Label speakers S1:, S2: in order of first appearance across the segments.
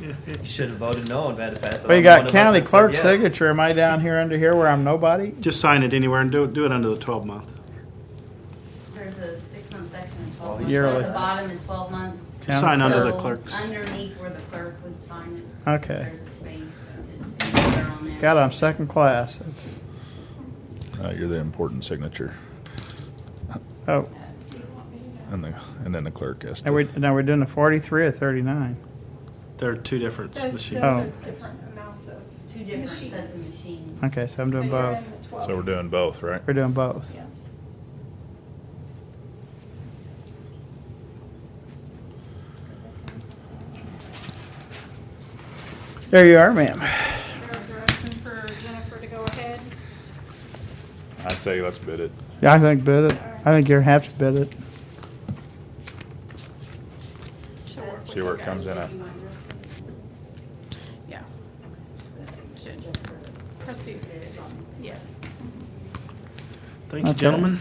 S1: You should have voted no and had to pass it on.
S2: Well, you
S1: One
S2: got
S1: of us
S2: county
S1: had said
S2: clerk
S1: yes.
S2: signature. Am I down here under here where I'm nobody?
S3: Just sign it anywhere and do, do it under the 12-month.
S4: There's a six-month section and
S1: Oh,
S4: twelve months. So
S2: yearly.
S4: at the bottom is twelve month.
S3: Just sign under the
S4: So
S3: clerks.
S4: Underneath where the clerk would sign it.
S2: Okay.
S4: There's a space, just anywhere on there.
S2: God, I'm second class. It's,
S5: Uh, you're the important signature,
S2: oh,
S5: and the and then the clerk has to.
S2: now we're, now we're doing a forty-three or thirty-nine.
S3: There are two different
S6: Those, those
S3: machines.
S2: Oh.
S6: are different amounts of.
S4: Two different sets
S6: machines.
S4: of machines.
S2: Okay, so I'm
S6: But
S2: doing
S6: you're in
S2: both.
S6: the 12.
S5: So we're doing both, right?
S2: We're doing both.
S6: Yeah.
S2: There you are, ma'am.
S6: Is there a direction for Jennifer to go ahead?
S5: I'd say let's bid it.
S2: Yeah, I think bid it. I think you're happy to bid it.
S6: She'll work
S5: See
S6: with
S5: where it
S6: you
S5: comes
S6: guys.
S5: in at.
S6: Yeah. Proceed. Yeah.
S3: Thank you,
S2: Okay.
S3: gentlemen.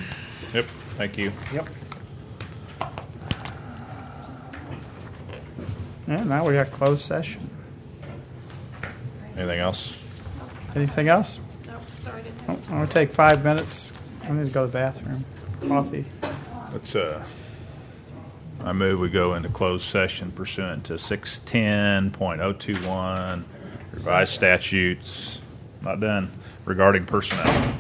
S5: Yep. Thank you.
S3: Yep.
S2: Yeah, now we got closed session.
S5: Anything else?
S2: Anything else?
S6: Nope, sorry, didn't have.
S2: Oh, I'm gonna take five minutes. I need to go to the bathroom. Coffee.
S5: Let's. Uh, I move we go into closed session pursuant to six ten point oh two one revised statutes. Not done regarding personnel.